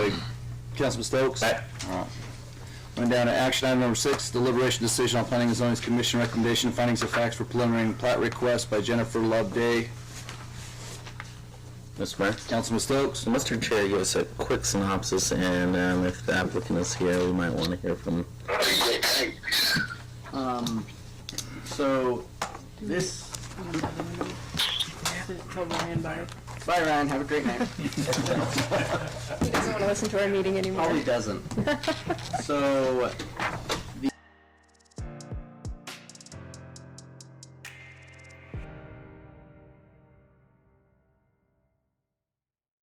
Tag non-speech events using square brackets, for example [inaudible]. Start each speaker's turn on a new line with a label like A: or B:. A: Councilman Stokes? All right. Going down to action item number six, deliberation decision on planning and zoning commission recommendation of findings of facts for preliminary and plat request by Jennifer Love Day.
B: Mr. Mayor?
A: Councilman Stokes?
B: So Mr. Chair, give us a quick synopsis, and um, if the applicant is here, we might want to hear from
C: Um, so this,
D: Tell Ryan bye.
C: bye Ryan, have a great night.
B: [laughs]
D: He doesn't want to listen to our meeting anymore.
C: Probably doesn't. So